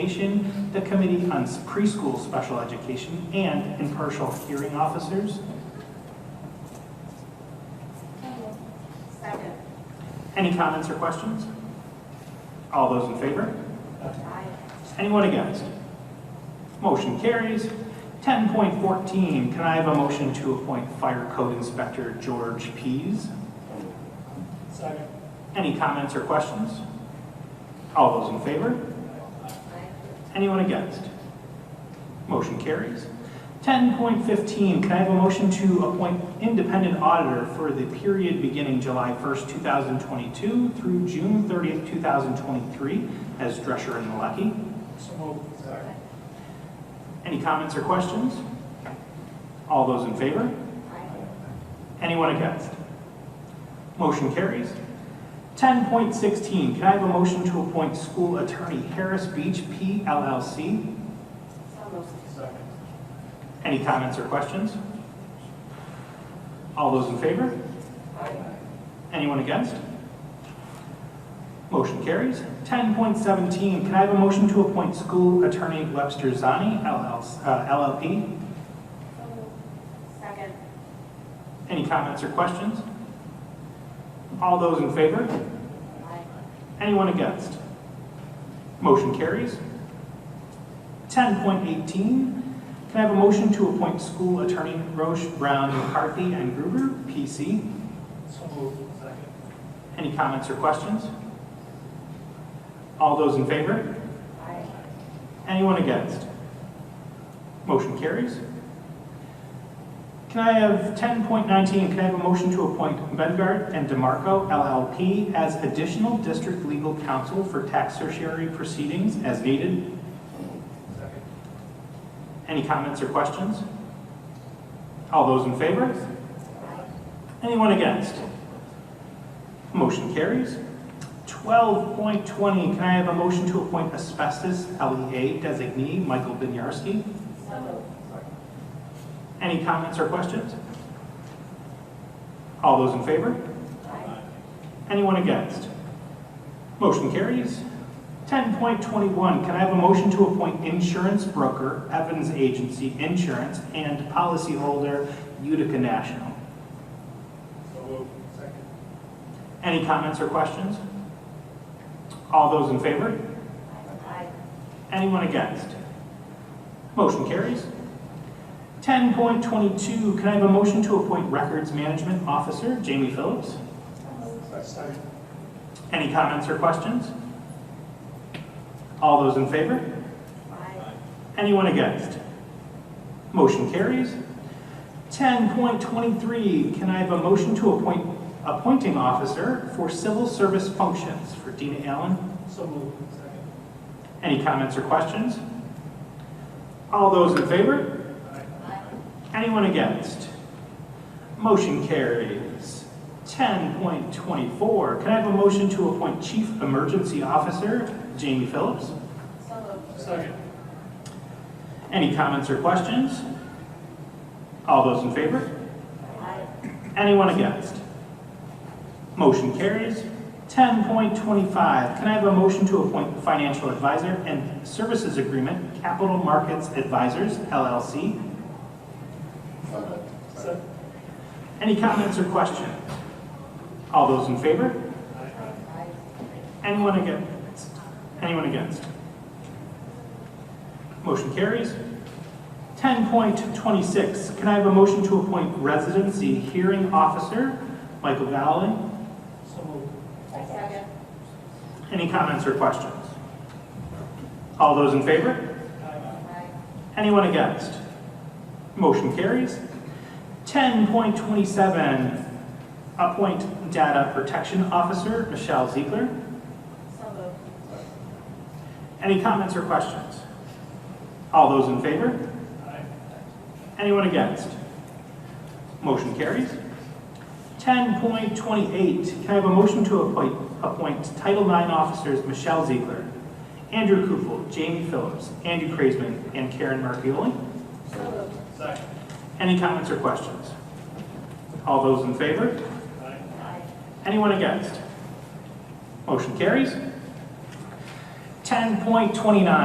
Education, the Committee on Preschool Special Education, and impartial hearing officers. Second. Any comments or questions? All those in favor? Aye. Anyone against? Motion carries. 10.14, can I have a motion to appoint Fire Code Inspector George Pease? Second. Any comments or questions? All those in favor? Anyone against? Motion carries. 10.15, can I have a motion to appoint independent auditor for the period beginning July 1st, 2022 through June 30th, 2023 as Drescher and Malecki? So moved. Second. Any comments or questions? All those in favor? Anyone against? Motion carries. 10.16, can I have a motion to appoint school attorney Harris Beach P. LLC So moved. Second. Any comments or questions? All those in favor? Anyone against? Motion carries. 10.17, can I have a motion to appoint school attorney Webster Zani LLC, uh, LLP? So moved. Second. Any comments or questions? All those in favor? Aye. Anyone against? Motion carries. 10.18, can I have a motion to appoint school attorney Roche Brown McCarthy and Gruber, PC? So moved. Second. Any comments or questions? All those in favor? Aye. Anyone against? Motion carries. Can I have 10.19, can I have a motion to appoint Bengard and DeMarco LLP as additional district legal counsel for tax tertiary proceedings as needed? Second. Any comments or questions? All those in favor? Anyone against? Motion carries. 12.20, can I have a motion to appoint asbestos LEA designee Michael Binyarski? So moved. Any comments or questions? All those in favor? Aye. Anyone against? Motion carries. 10.21, can I have a motion to appoint insurance broker Evans Agency Insurance and policyholder Utica National? So moved. Second. Any comments or questions? All those in favor? Aye. Anyone against? Motion carries. 10.22, can I have a motion to appoint records management officer Jamie Phillips? Second. Any comments or questions? All those in favor? Aye. Anyone against? Motion carries. 10.23, can I have a motion to appoint appointing officer for civil service functions for Dina Allen? So moved. Second. Any comments or questions? All those in favor? Anyone against? Motion carries. 10.24, can I have a motion to appoint chief emergency officer Jamie Phillips? So moved. Second. Any comments or questions? All those in favor? Aye. Anyone against? Motion carries. 10.25, can I have a motion to appoint Financial Advisor and Services Agreement Capital Markets Advisors LLC? Second. Any comments or questions? All those in favor? Aye. Anyone against? Anyone against? Motion carries. 10.26, can I have a motion to appoint residency hearing officer, Michael Valley? So moved. Second. Any comments or questions? All those in favor? Aye. Anyone against? Motion carries. 10.27, appoint data protection officer, Michelle Ziegler. So moved. Any comments or questions? All those in favor? Anyone against? Motion carries. 10.28, can I have a motion to appoint, appoint Title IX officers Michelle Ziegler, Andrew Kufel, Jamie Phillips, Andy Kraisman, and Karen Markioli? So moved. Second. Any comments or questions? All those in favor? Aye. Anyone against? Motion carries. 10.29, 10.29,